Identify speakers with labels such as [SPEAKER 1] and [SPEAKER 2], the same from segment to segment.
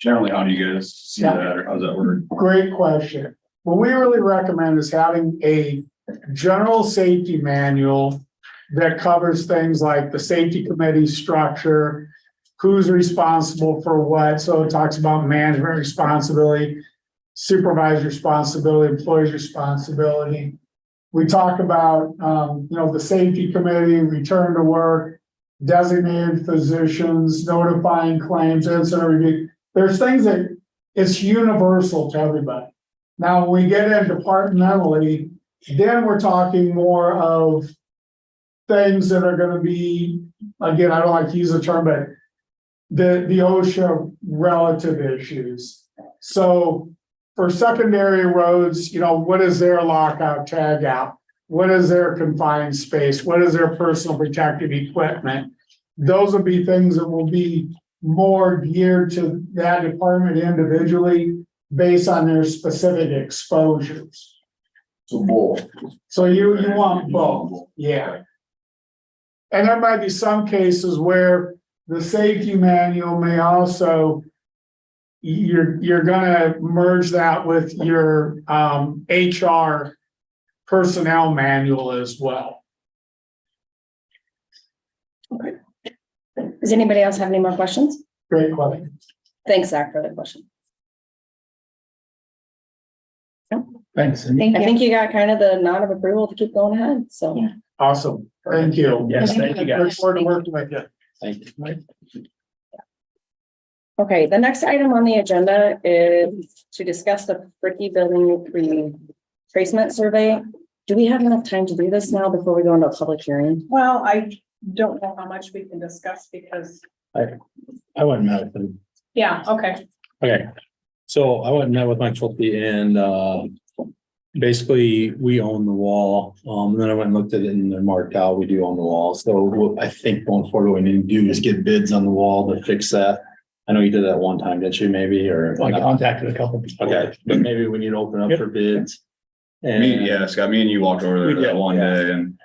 [SPEAKER 1] Generally, how do you guys see
[SPEAKER 2] Yeah.
[SPEAKER 1] that, or how's that work?
[SPEAKER 2] Great question. What we really recommend is having a general safety manual that covers things like the safety committee structure, who's responsible for what, so it talks about management responsibility, supervisor responsibility, employee's responsibility. We talk about, um, you know, the safety committee, return to work, designated physicians, notifying claims, incident review. There's things that it's universal to everybody. Now, when we get in departmentally, then we're talking more of things that are gonna be, again, I don't like to use the term, but the, the OSHA relative issues. So for secondary roads, you know, what is their lockout, tagout? What is their confined space? What is their personal protective equipment? Those would be things that will be more geared to that department individually based on their specific exposures.
[SPEAKER 1] So both.
[SPEAKER 2] So you, you want both, yeah. And there might be some cases where the safety manual may also you're, you're gonna merge that with your, um, HR personnel manual as well.
[SPEAKER 3] Does anybody else have any more questions?
[SPEAKER 2] Great question.
[SPEAKER 3] Thanks, Zach, for the question.
[SPEAKER 4] Thanks. Cindy.
[SPEAKER 3] I think you got kind of the nod of approval to keep going ahead, so.
[SPEAKER 5] Yeah.
[SPEAKER 2] Awesome. Thank you.
[SPEAKER 4] Yes, thank you
[SPEAKER 2] Look
[SPEAKER 4] guys.
[SPEAKER 2] forward to working with you.
[SPEAKER 4] Thank you.
[SPEAKER 3] Okay, the next item on the agenda is to discuss the Bricky Building retracement survey. Do we have enough time to do this now before we go into a public hearing?
[SPEAKER 5] Well, I don't know how much we can discuss because,
[SPEAKER 4] I went and met with them.
[SPEAKER 5] yeah, okay,
[SPEAKER 4] Okay, so I went and met with Mike Schulte and, uh, basically, we own the wall. Um, and then I went and looked at it and they're marked out, we do own the wall. So what I think going forward, what we need to do is get bids on the wall to fix that. I know you did that one time, didn't you, maybe, or?
[SPEAKER 6] I contacted a couple people.
[SPEAKER 4] Okay, but maybe we need to open up for bids.
[SPEAKER 1] Me,
[SPEAKER 4] And,
[SPEAKER 1] yeah, Scott, me and you walked over
[SPEAKER 4] We
[SPEAKER 1] there
[SPEAKER 4] did,
[SPEAKER 1] that one
[SPEAKER 4] yeah.
[SPEAKER 1] day and,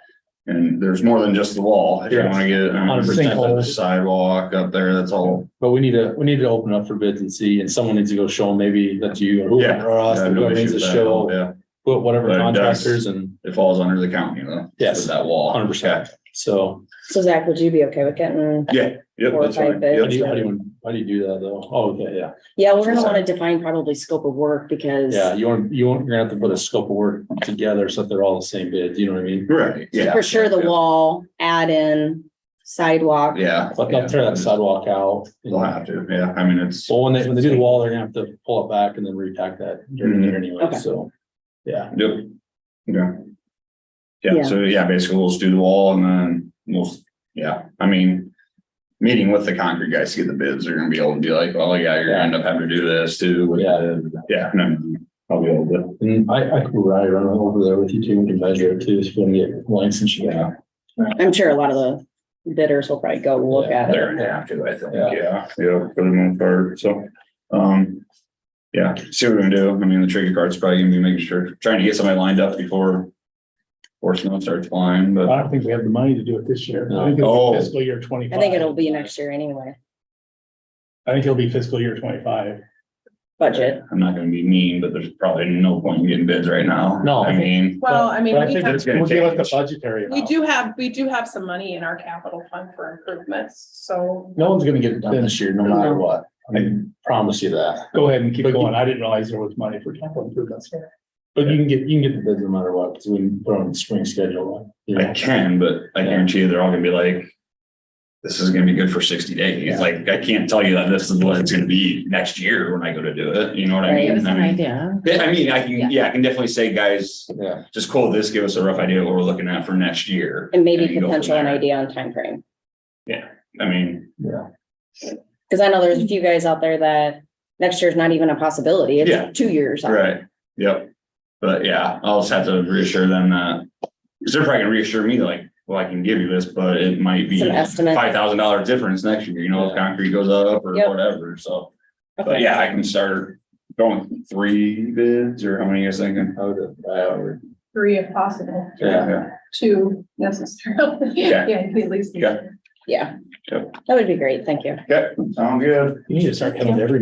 [SPEAKER 1] and there's more than just the wall. If you
[SPEAKER 4] Yes.
[SPEAKER 1] wanna get um,
[SPEAKER 4] 100%.
[SPEAKER 1] the sidewalk up there, that's all.
[SPEAKER 4] But we need to, we need to open up for bids and see, and somemeone needs to go show them, maybe that's you or
[SPEAKER 1] Yeah,
[SPEAKER 4] whoever, or us,
[SPEAKER 1] I have no
[SPEAKER 4] whoever needs
[SPEAKER 1] issue
[SPEAKER 4] to
[SPEAKER 1] with that at all,
[SPEAKER 4] show,
[SPEAKER 1] Yeah,
[SPEAKER 4] who- whatever
[SPEAKER 1] But it does-
[SPEAKER 4] contractors and,
[SPEAKER 1] it falls under the county though.
[SPEAKER 4] Yes.
[SPEAKER 1] for That wall.
[SPEAKER 4] 100%. so.
[SPEAKER 3] So Zach, would you be okay with getting?
[SPEAKER 1] Yeah, yep,
[SPEAKER 3] Four or
[SPEAKER 1] that's
[SPEAKER 3] five
[SPEAKER 1] right.
[SPEAKER 4] How do
[SPEAKER 3] bids.
[SPEAKER 1] Yep.
[SPEAKER 4] you, how do you, how do you do that though? Oh, okay, yeah,
[SPEAKER 3] Yeah, we're gonna wanna define probably scope of work because.
[SPEAKER 4] yeah, you want, you want, you're gonna have to put a scope of work together so that they're all the same bid, you know what I mean?
[SPEAKER 1] Right, yeah.
[SPEAKER 3] For sure, the
[SPEAKER 1] yeah,
[SPEAKER 3] wall, add in sidewalk.
[SPEAKER 1] Yeah.
[SPEAKER 4] Like, they'll tear that sidewalk out.
[SPEAKER 1] They'll have to, yeah, I mean, it's.
[SPEAKER 4] So when they, when they do the wall, they're gonna have to pull it back and then repack that during the year anyway,
[SPEAKER 3] Okay.
[SPEAKER 4] so, yeah.
[SPEAKER 1] Yep. Yeah.
[SPEAKER 3] Yeah.
[SPEAKER 1] Yeah, so yeah, basically we'll just do the wall and then we'll, yeah, I mean. Meeting with the concrete guys to get the bids, they're gonna be able to be like, well, yeah, you're gonna end up having to do this too. with
[SPEAKER 4] Yeah.
[SPEAKER 1] the- Yeah, no, I'll be able to.
[SPEAKER 4] And I, I could ride around over there with you too, we can measure it too, if you wanna get lengths and shit.
[SPEAKER 1] Yeah.
[SPEAKER 3] I'm sure a lot of the bidders will probably go look
[SPEAKER 4] Yeah,
[SPEAKER 3] at it.
[SPEAKER 1] They're gonna have to, I think,
[SPEAKER 4] Yeah.
[SPEAKER 1] yeah, yeah, for the most part, so, um. Yeah, see what we're gonna do, I mean, the tricky part's probably gonna be making sure, trying to get somebody lined up before. Or snow starts flying,
[SPEAKER 6] I
[SPEAKER 1] but
[SPEAKER 6] don't think we have the money to do it this year. I think
[SPEAKER 1] No.
[SPEAKER 6] it'll
[SPEAKER 1] Oh.
[SPEAKER 6] be fiscal year twenty-five.
[SPEAKER 3] I think it'll be next year anyway,
[SPEAKER 6] I think it'll be fiscal year twenty-five.
[SPEAKER 3] budget.
[SPEAKER 1] I'm not gonna be mean, but there's probably no point in getting bids right now.
[SPEAKER 4] No.
[SPEAKER 1] I mean.
[SPEAKER 5] well, I mean,
[SPEAKER 6] But I
[SPEAKER 5] we
[SPEAKER 6] think
[SPEAKER 5] have,
[SPEAKER 6] it's gonna give us the budgetary
[SPEAKER 5] we
[SPEAKER 6] amount.
[SPEAKER 5] do have, we do have some money in our capital fund for improvements, so.
[SPEAKER 4] No one's gonna get it done this year, no matter what, I promise you that.
[SPEAKER 6] Go ahead and keep
[SPEAKER 4] But you-
[SPEAKER 6] going. I didn't realize there was money for capital improvements.
[SPEAKER 4] But you can get, you can get the bids no matter what, because we can put on the spring schedule, you
[SPEAKER 1] I
[SPEAKER 4] know?
[SPEAKER 1] can, but I guarantee you, they're all gonna be like, this is gonna be good for sixty days. Like, I can't tell you that this is what it's gonna be next year when I go to do it. You know what I
[SPEAKER 3] Right. Give
[SPEAKER 1] mean? I mean,
[SPEAKER 3] idea.
[SPEAKER 1] yeah, I mean, I can, yeah, I can definitely say, guys,
[SPEAKER 4] Yeah,
[SPEAKER 1] just quote this, give us a rough idea of what we're looking at for next year.
[SPEAKER 3] And maybe
[SPEAKER 1] you go from
[SPEAKER 3] potential an
[SPEAKER 1] there.
[SPEAKER 3] idea on timeframe.
[SPEAKER 1] I mean,
[SPEAKER 4] yeah.
[SPEAKER 3] Cause I know there's a few guys out there that next year's not even a possibility.
[SPEAKER 1] Yeah.
[SPEAKER 3] It's two years. out.
[SPEAKER 1] right, yep. But yeah, I'll just have to reassure them that, because they're probably gonna reassure me like, well, I can give you this, but it might be
[SPEAKER 3] It's an estimate.
[SPEAKER 1] five thousand dollar difference next year, you know, if
[SPEAKER 4] Yeah.
[SPEAKER 1] concrete goes up or
[SPEAKER 3] Yep.
[SPEAKER 1] whatever, so. But
[SPEAKER 3] Okay.
[SPEAKER 1] yeah, I can start going three bids or how many you guys thinking?
[SPEAKER 4] I would, I would,
[SPEAKER 5] Three if possible,
[SPEAKER 4] yeah,
[SPEAKER 5] two necessarily.
[SPEAKER 1] Yeah.
[SPEAKER 5] at least.
[SPEAKER 1] Yeah.
[SPEAKER 3] Yeah.
[SPEAKER 1] Yep.
[SPEAKER 3] That would be great. Thank you.
[SPEAKER 1] Okay, sound good.
[SPEAKER 4] you need to start coming to every